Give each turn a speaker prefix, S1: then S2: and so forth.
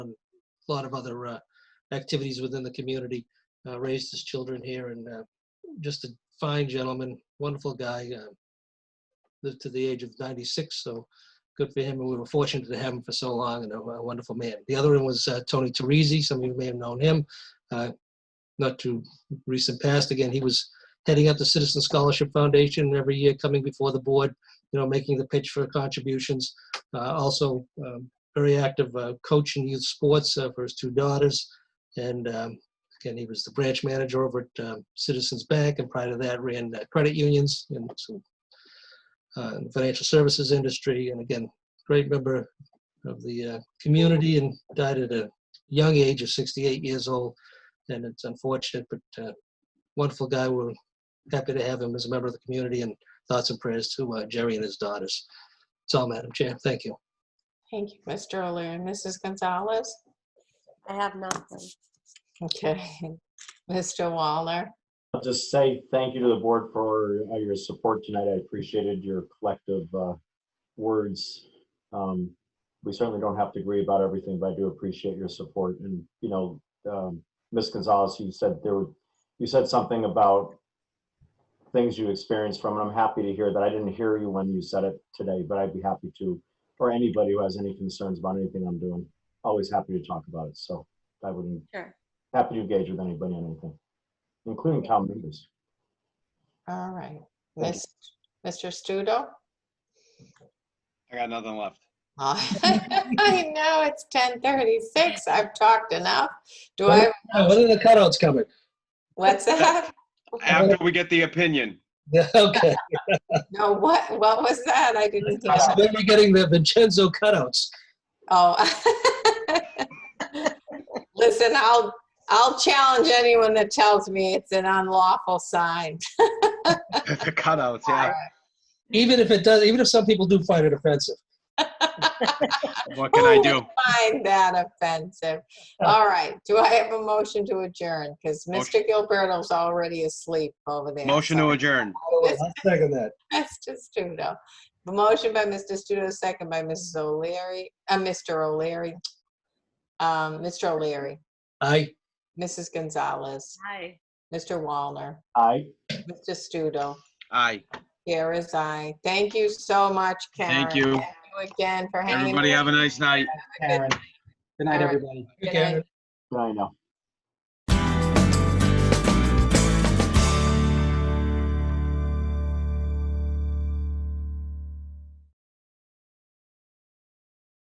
S1: a lot of other uh, activities within the community. Uh, raised his children here, and uh, just a fine gentleman, wonderful guy. Uh, lived to the age of 96, so good for him. And we were fortunate to have him for so long, and a, a wonderful man. The other one was uh, Tony Teresi. Some of you may have known him. Uh, not too recent past. Again, he was heading up the Citizen Scholarship Foundation every year, coming before the board, you know, making the pitch for contributions. Uh, also, um, very active uh, coach in youth sports uh, for his two daughters. And um, again, he was the branch manager over at um, Citizens Bank, and prior to that, ran uh, credit unions and some uh, in the financial services industry. And again, great member of the uh, community, and died at a young age of 68 years old. And it's unfortunate, but uh, wonderful guy. We're happy to have him as a member of the community, and thoughts and prayers to uh, Jerry and his daughters. That's all, Madam Chair. Thank you.
S2: Thank you, Mr. O'Leary. Mrs. Gonzalez?
S3: I have nothing.
S2: Okay. Mr. Waller?
S4: I'll just say thank you to the board for uh, your support tonight. I appreciated your collective uh, words. Um, We certainly don't have to agree about everything, but I do appreciate your support. And, you know, um, Ms. Gonzalez, you said there, were you said something about things you experienced from, and I'm happy to hear that. I didn't hear you when you said it today, but I'd be happy to, or anybody who has any concerns about anything I'm doing, always happy to talk about it. So I wouldn't,
S3: Sure.
S4: happy to engage with anybody on anything, including town members.
S2: All right.
S4: Thank
S2: Miss- Mr. Studo?
S5: I got nothing left.
S2: Uh, I know it's 10:36. I've talked enough. Do I,
S1: when Ah, are the cutouts coming?
S2: what's that?
S5: After we get the opinion,
S1: Yeah, okay.
S2: No, what, what was that? I didn't hear.
S1: So Maybe getting the Vincenzo cutouts.
S2: Oh. Listen, I'll, I'll challenge anyone that tells me it's an unlawful sign.
S5: the cutouts, yeah.
S1: Even if it does, even if some people do find it offensive.
S5: What can I
S2: Who
S5: do?
S2: would Find that offensive. All right, do I have a motion to adjourn? Because Mr.
S5: Motion.
S2: Gilberto's already asleep over there.
S5: Motion to adjourn.
S1: I'll Oh, second that.
S2: adjourn. Mr. Studo. The motion by Mr. Studo, second by Mrs. O'Leary, uh, Mr. O'Leary. Um, Mr. O'Leary,
S1: Aye.
S2: Mrs. Gonzalez,
S3: Hi.
S2: Mr. Wallner,
S4: Aye.
S2: Mr. Studo.
S5: Aye.
S2: Here is I. Thank you so much, Karen.
S5: Thank you.
S2: Again for hanging.
S5: Everybody have a nice night.
S2: Karen.
S6: Good night,
S2: All right.
S6: everybody.
S2: Good night.
S4: I know.